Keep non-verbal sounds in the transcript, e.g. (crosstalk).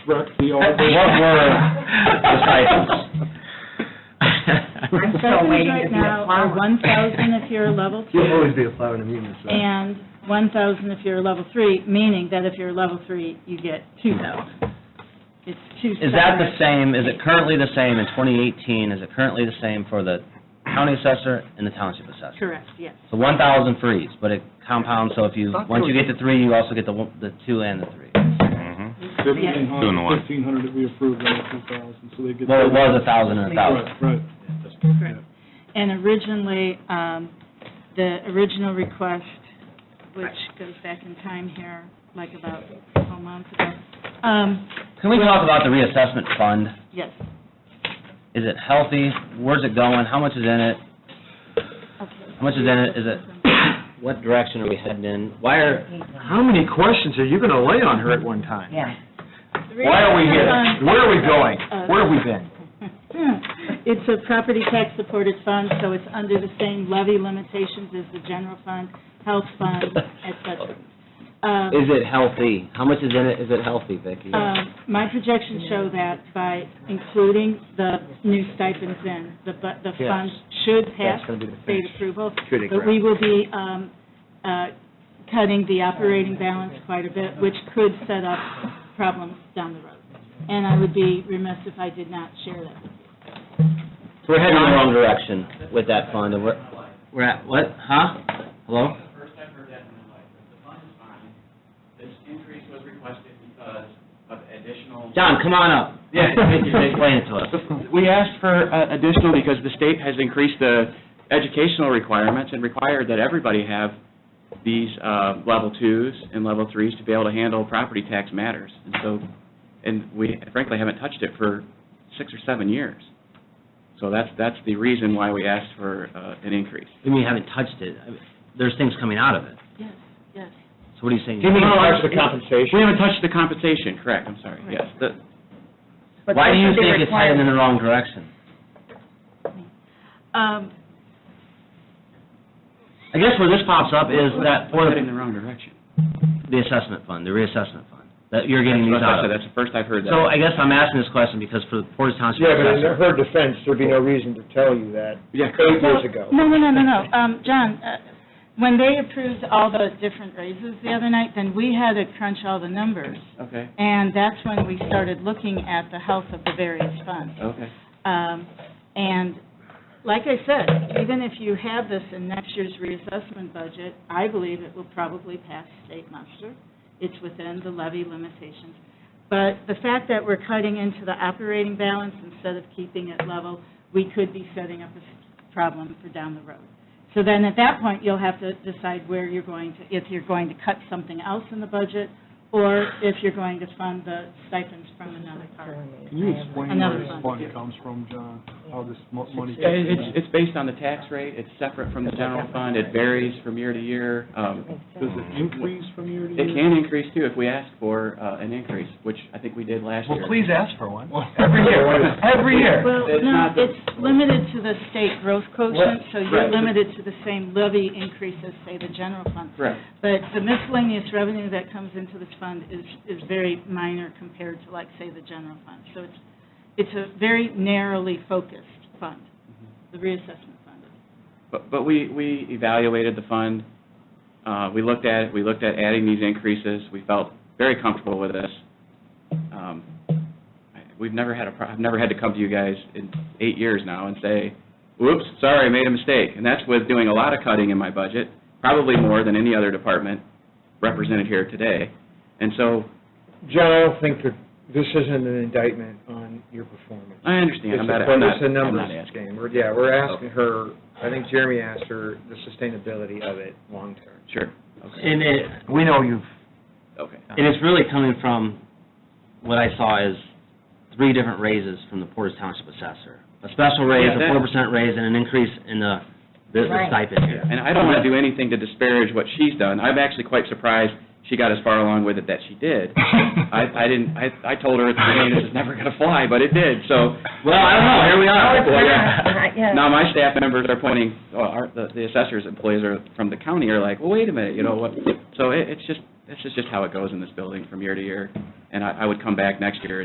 correct the What order? (laughs) (laughs) were the I'm stipends? still waiting to Right be a now are flower. one thousand if you're (laughs) a level You'll always two, be a flower in a munis, so. and one thousand if you're a level three, meaning that if you're a level three, you get two thousand. It's two Is that the separate. same, is it currently the same in 2018? Is it currently the same for the county assessor and the township assessor? Correct, yes. So 1,000 for each, but it compounds, so if you, Thought there once you was- get to three, you also get the one- the two and the three. Mm-hmm. Fifteen Doing hundred, the what? fifteen hundred that we approved, and two thousand, so they get. Well, it was 1,000 and 1,000. Right, right. Correct. And originally, um, the original request, which goes back in time here, like about a month ago, um, Can we talk about the reassessment fund? yes, Is it healthy? Where's it going? How much is in it? okay. How much is in it? Is it, what direction are we heading in? Why are, How many questions are you gonna lay on her at one time? Yeah. Why are we here? Where are we going? Where have we been? Hmm. It's a property tax-supported fund, so it's under the same levy limitations as the general fund, health (laughs) fund, et cetera. Um, is it healthy? How much is in it? Is it healthy, Vicki? Um, My projections show that by including the new stipends in, the bu- the Yes. fund should pass That's gonna be the state finish. approval, Good, but we will be um, uh, cutting the operating balance quite a bit, which could set up problems down the road. And I would be remiss if I did not share that. We're heading in the wrong direction with that fund, and we're, we're at, what, huh? Hello? That's the first I've heard that in my life, but the fund is fine. This increase was requested because of additional. John, come on up. Yeah, thank you, thank you. Explain it to us. We asked for uh, additional because the state has increased the educational requirements and required that everybody have these uh, level twos and level threes to be able to handle property tax matters. And so, and we frankly haven't touched it for six or seven years. So that's, that's the reason why we asked for uh, an increase. You mean you haven't touched it? I mean, There's things coming out of it. Yes, yes. So what are you saying? the compensation. Oh, We haven't touched the compensation, correct, I'm sorry, yes. The- But Why do you that's what they think it's require. heading in the wrong direction? Um, I guess where this pops up is that for Heading the in the wrong direction. assessment fund, the reassessment fund, that you're getting these That's out what I said, of. That's the first I've heard that. So I guess I'm asking this question because for the Portage Township Yeah, but in assessor, her defense, there'd be no reason to tell you that Yeah, eight years Well, ago. No, no, no, no, no. Um, John, uh, when they approved all those different raises the other night, then we had to crunch all the numbers. okay, And that's when we started looking at the health of the various funds. okay. Um, And like I said, even if you have this in next year's reassessment budget, I believe it will probably pass state muster. It's within the levy limitations. But the fact that we're cutting into the operating balance instead of keeping it level, we could be setting up a s- problem for down the road. So then at that point, you'll have to decide where you're going to, if you're going to cut something else in the budget or if you're going to fund the stipends from another part. Can you explain where Another this fund. fund comes from, John, how this mo- money? Yeah, it- It's, it's based on the tax rate, it's separate from the general fund, it varies from year to year. Um, Does it increase from year to It year? can increase too if we ask for uh, an increase, which I think we did last Well, year. please ask for one. Every year, every year. Well, It's no, not the- it's limited to the state growth quotient, so you're Right. limited to the same levy increase as, say, the general fund. Correct. But the miscellaneous revenue that comes into this fund is, is very minor compared to, like, say, the general fund. So it's, it's a very narrowly focused fund, Mm-hmm. the reassessment fund. But, but we, we evaluated the fund, uh, we looked at it, we looked at adding these increases, we felt very comfortable with this. Um, I- We've never had a, pro- I've never had to come to you guys in eight years now and say, whoops, sorry, I made a mistake. And that's with doing a lot of cutting in my budget, probably more than any other department represented here today. And so, John, I don't think that, this isn't an indictment on your performance. I understand, I'm not, It's a- I'm not, It's a I'm not numbers asking. Oh. game. We're- Yeah, we're asking her, I think Jeremy asked her, the sustainability of it long-term. Sure, and it, We know you've, okay. and it's really coming from, what I saw is three different raises from the Portage Township assessor. A special raise, Yeah, a that- four percent raise, and an increase in the, the the Right. stipend here. And I don't want to do anything to disparage what she's done. I'm actually quite surprised she got as far along with it that she did. (laughs) I, I didn't, I, I told her at the beginning, this is never going to fly, but it did, so. Well, I don't know, here we Oh, are. it's not, yeah. Now, my staff members are pointing, well, our, the the assessors employees are, from the county are like, well, wait a minute, you know what? So it, it's just, this is just how it goes in this building from year to year. And I, I would come back next year